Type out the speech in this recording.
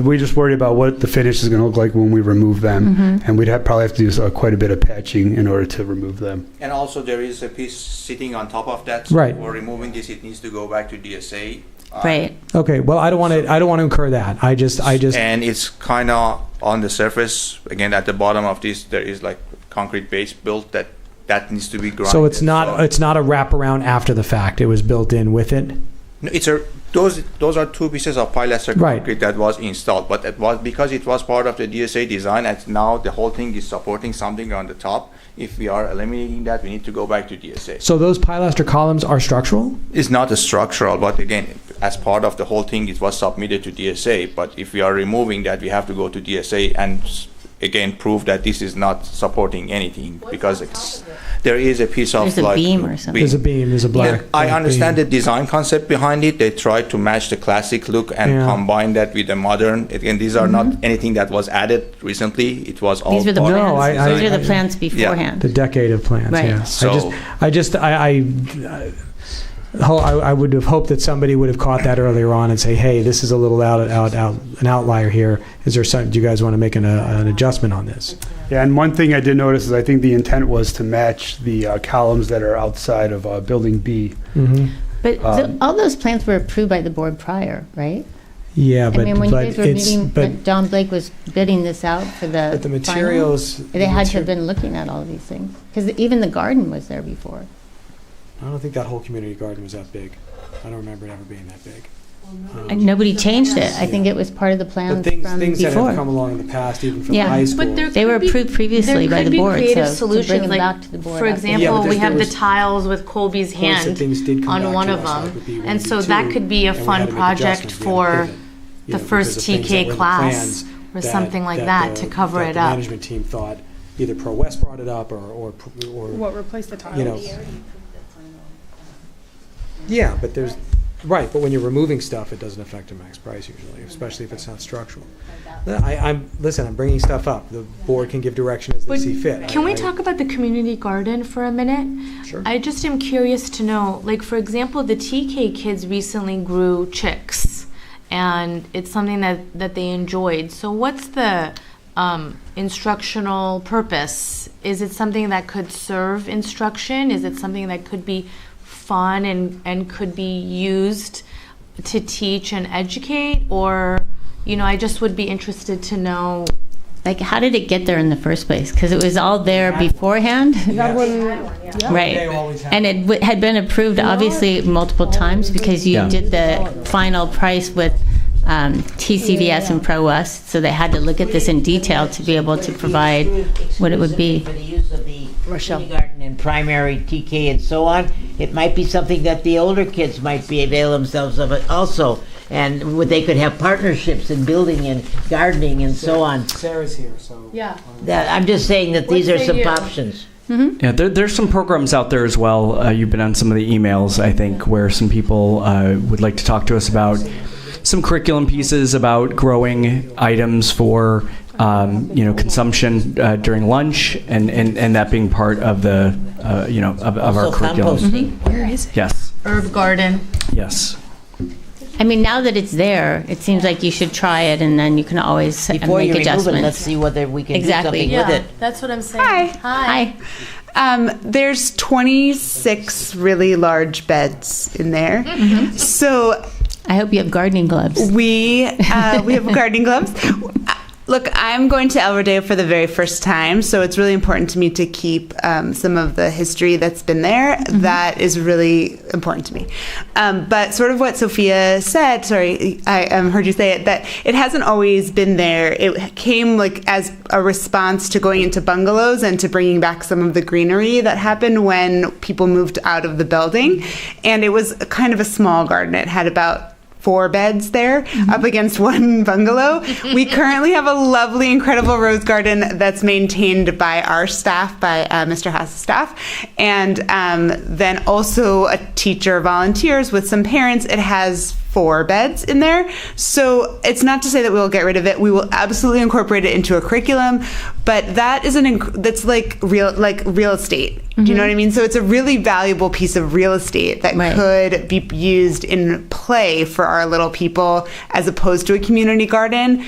We just worry about what the finish is going to look like when we remove them, and we'd have, probably have to do uh, quite a bit of patching in order to remove them. And also there is a piece sitting on top of that. Right. We're removing this, it needs to go back to DSA. uh, Right. Okay, well, I don't want to. I don't want to incur that. I just, I just. And it's kind of on the surface, again, at the bottom of this, there is like concrete base built that, that needs to be grounded. So it's not. It's not a wraparound after the fact. It was built in with it. No, It's a, those, those are two pieces of pilaster Right. concrete that was installed, but it was, because it was part of the DSA design, and now the whole thing is supporting something on the top. If we are eliminating that, we need to go back to DSA. So those pilaster columns are structural. It's not a structural, but again, as part of the whole thing, it was submitted to DSA, but if we are removing that, we have to go to DSA and s- again, prove that this is not supporting anything, because it's, there is a piece of There's a like. beam or something. There's a beam. There's a black. Yeah, I black understand beam. the design concept behind it. They tried to match the classic look and Yeah. combine that with the modern. Again, these are not anything that was added recently. It was all. Mm-hmm. These were the part- No, plans. I- I- These are I- the plans beforehand. The decade of plans. Right. Yeah. I So- just. I just. I. I ho- I I would have hoped that somebody would have caught that earlier on and say, "Hey, this is a little out, out, out, an outlier here. Is there some? Do you guys want to make an, uh, an adjustment on this?" Yeah, and one thing I did notice is I think the intent was to match the uh, columns that are outside of uh, Building B. Mm-hmm. But the- Um, all those plans were approved by the board prior, right? Yeah, I but mean, when you but guys were it's meeting, but when Don Blake was bidding this out for the. but the final, materials. They had to have been looking at all these things, because even the garden was there before. I don't think that whole community garden was that big. I don't remember it ever being that big. Um, And nobody changed it. I think it was part of the But plans things, from things that have come before. along in the past, even from Yeah. high school. But there They were could be- approved previously there by could the be board, creative so to bring solutions, them like, back to the board. For after- Yeah, but example, there- we have there the was- tiles with Colby's Points that hand things did come on back one to of us, like them. with B1, And so B2, that could be a and we had fun to make project adjustments, we had to for pivot, you the know, first because of things that TK were in the class plans or something like that to the- cover that it the up. Management team thought either Pro West brought it up or, or, or, What replaced the tiles? you know. Yeah, but there's, right, but when you're removing stuff, it doesn't affect the max price usually, especially if it's not structural. No, I, I'm, listen, I'm bringing stuff up. The board can give direction as they But see fit. I- Can we I- talk about the community garden for a minute? Sure. I just am curious to know, like for example, the TK kids recently grew chicks, and it's something that that they enjoyed. So what's the um, instructional purpose? Is it something that could serve instruction? Is it something that could be fun and and could be used to teach and educate? Or you know, I just would be interested to know Like, how did it get there in the first place? Because it was all there beforehand, right? They always have. And it w- had been approved, obviously, multiple times, because you Yeah. did the final price with um, TCDS and Pro West, so they had to look at this in detail to be able to provide what it would be. For the use of the Rochelle. kindergarten and primary TK and so on, it might be something that the older kids might be avail themselves of it also. And would- they could have partnerships in building and gardening and so on. Sarah's here, so. Yeah. That, I'm just saying that these are What's the some year? options. Yeah, there, there's some programs out there as well. Uh, you've been on some of the emails, I think, where some people uh, would like to talk to us about some curriculum pieces about growing items for um, you know consumption uh, during lunch, and, and, and that being part of the uh, you know of, of our Also curriculum. composting. Yes, herb garden. yes. I mean, now that it's there, it seems like you should try it, and then you can always uh, Before make you remove it, let's adjustments. see whether we can do Exactly. something with it. that's what I'm saying. Hi. Hi. Hi, Um, there's 26 really large beds in there. So I hope you have gardening gloves. we uh, we have gardening gloves. Look, I'm going to El Rodeo for the very first time, so it's really important to me to keep um, some of the history that's been there. That is really important to me. Um, but sort of what Sophia said, sorry, I um, heard you say it, that it hasn't always been there. It came like as a response to going into bungalows and to bringing back some of the greenery that happened when people moved out of the building. And it was kind of a small garden. It had about four beds there up against one bungalow. we currently have a lovely, incredible rose garden that's maintained by our staff, by uh, Mr. Haas' staff, and um, then also a teacher volunteers with some parents. It has four beds in there. So it's not to say that we will get rid of it. We will absolutely incorporate it into a curriculum, but that is an inc- that's like real like real estate. Do you know what I mean? So it's a really valuable piece of real estate that Right. could could be used in play for our little people as opposed to a community garden.